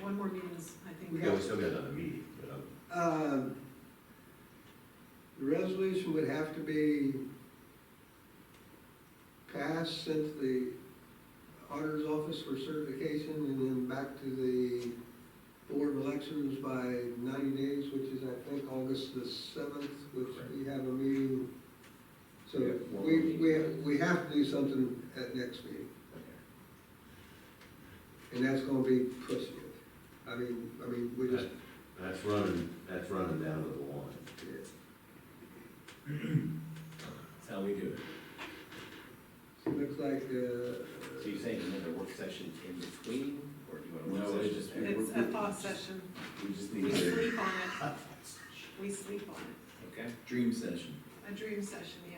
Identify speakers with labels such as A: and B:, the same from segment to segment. A: one more meeting is, I think.
B: We
A: we
B: got, we
A: got.
B: still got another meeting, but um,
C: Um, The resolution would have to be passed sent to the auditor's office for certification and then back to the board of elections by ninety days, which is, I think, August the seventh, which we have a meeting. So
B: Yeah, one more
C: we, we,
B: meeting.
C: we have to do something at next meeting.
B: okay.
C: And that's gonna be pushing it. I mean, I mean, we just,
B: that's running, that's running down to the line.
D: That's how we do it.
C: it looks like, uh.
E: So you're saying another work session in between, or do you want a
D: No,
E: work
D: it's
E: session?
D: just-
E: there?
A: It's a thought session.
D: We just
A: We
D: need a
A: sleep on it. We sleep on it.
E: Okay,
D: dream session.
A: A dream session, yeah.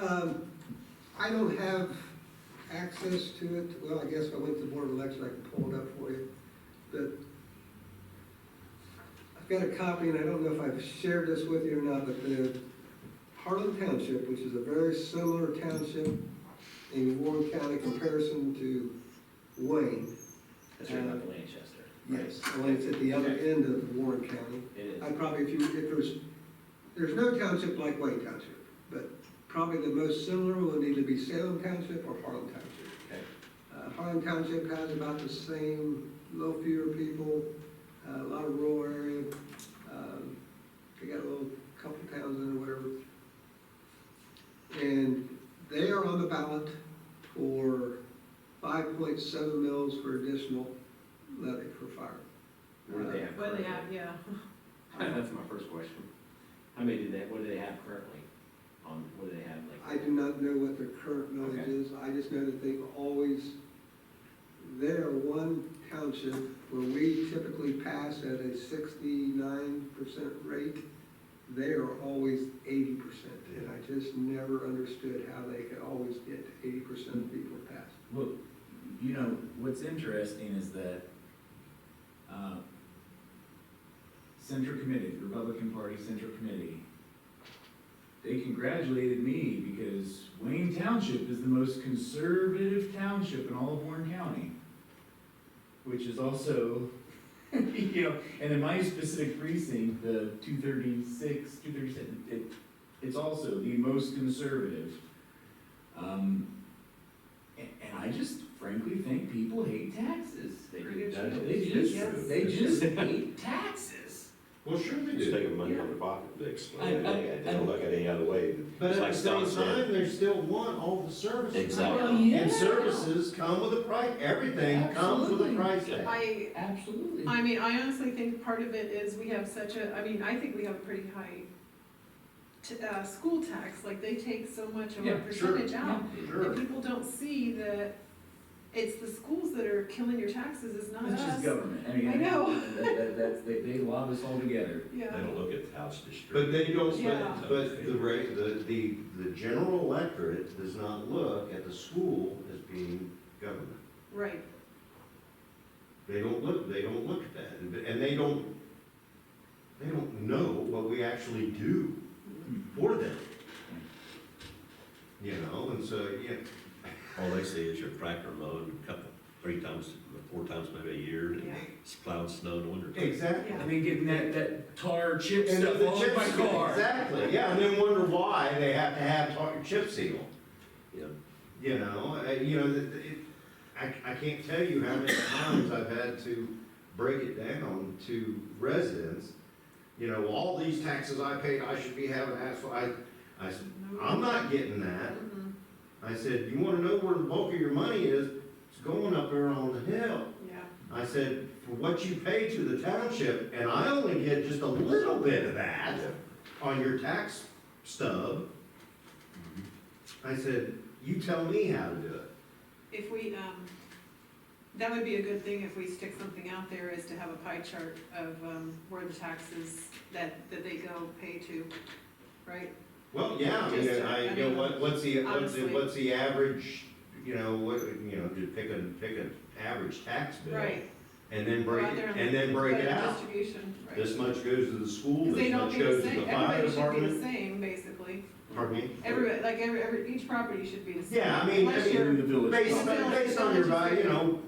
C: Um, I don't have access to it, well, I guess if I went to the Board of Elections, I can pull it up for you, but I've got a copy, and I don't know if I've shared this with you or not, but the Harlan Township, which is a very similar township in Warren County comparison to Wayne.
E: that's right,
A: Uh,
E: not the Lanchester. right?
C: Only it's at the other end of Warren County.
E: It is,
C: I probably, if you, if there's, there's no township like Wayne Township, but probably the most similar would either be Salem Township or Harlan Township.
E: okay,
C: Uh, Harlan Township has about the same, little fewer people, uh, a lot of rural area. um, They got a little, couple towns in or whatever. And they are on the ballot for five point seven mils for additional levy for fire.
E: what do they have
A: What do
E: currently?
A: they have, yeah.
E: That's my first question. How many do they, what do they have currently? On, what do they have, like?
C: I do not know what their current millage
E: Okay.
C: is, I just know that they've always, they're one township where we typically pass at a sixty-nine percent rate, they are always eighty percent, and I just never understood how they could always get eighty percent of people to pass.
D: Well, you know, what's interesting is that, uh, Central Committee, the Republican Party Central Committee, they congratulated me because Wayne Township is the most conservative township in all of Warren County, which is also, you know, and in my specific precinct, the two thirty-six, two thirty-seven, it, it's also the most conservative. Um, and, and I just frankly think people hate taxes.
E: They
A: Are
E: do,
A: you
E: that
A: sure?
D: They
E: is-
D: just, they just hate taxes.
B: Well, sure they
F: It's
B: do.
F: taking money out of their pocket, they
D: I-
F: explain,
D: I-
F: they they don't look at it any other way.
B: But
F: It's
B: at
F: like
B: the same
F: Don said,
B: time, they still want all the services.
F: Exactly.
D: Well, Oh, yeah.
B: And services come with a price, everything comes with a
D: Absolutely.
B: price tag.
A: I,
D: Absolutely.
A: I mean, I honestly think part of it is we have such a, I mean, I think we have a pretty high t- uh, school tax, like they take so much of our
D: Yeah,
B: sure.
A: percentage out.
B: Sure.
A: But people don't see that it's the schools that are killing your taxes, it's not us.
D: It's just government. I mean,
A: I know.
D: That, that, that's- they, they lob us all together.
A: Yeah.
F: they don't look at the house district.
B: But they don't,
A: Yeah.
B: but, but the rate, the, the, the general electorate does not look at the school as being government.
A: Right,
B: They don't look, they don't look at that, and- and they don't, they don't know what we actually do for them. You know, and so, yeah,
F: All they see is your tractor mowed a couple, three times, four times maybe a year, and
A: yeah.
F: it's plowed snow in the winter.
B: exactly.
A: Yeah.
D: And then getting that, that tar chip
B: And
D: stuff
B: the
D: all over my
B: chip seal-
D: car.
B: Exactly, yeah, and then wonder why they have to have tar- chip seal.
F: Yeah.
B: You know, uh, you know, th- th- it, I, I can't tell you how many times I've had to break it down to residents. You know, all these taxes I paid, I should be having asphalt, I, I said, I'm not getting that.
A: Mhm,
B: I said, you wanna know where the bulk of your money is? It's going up there on the hill.
A: Yeah,
B: I said, for what you pay to the township, and I only get just a little bit of that on your tax stub.
A: Mm-hmm.
B: I said, you tell me how to do it.
A: if we, um, that would be a good thing if we stick something out there is to have a pie chart of, um, where the taxes that, that they go pay to, right?
B: Well, yeah, I mean,
A: Just,
B: I,
A: I
B: you know,
A: mean,
B: what, what's the, what's the,
A: honestly.
B: what's the average, you know, what, you know, just pick a, pick an average tax bill.
A: Right.
B: And then break,
A: Rather than-
B: and then break
A: but
B: it out.
A: Distribution, right.
B: This much goes to the school,
A: Because they
B: this
A: don't
B: much
A: be the
B: goes to
A: same,
B: the fire
A: everybody should be the
B: department.
A: same, basically.
B: Pardon me?
A: Everybody, like, every, every, each property should be the same.
B: Yeah, I mean, I
A: Unless
B: mean,
A: you're-
D: In the village.
B: Based on, based on your value, you know,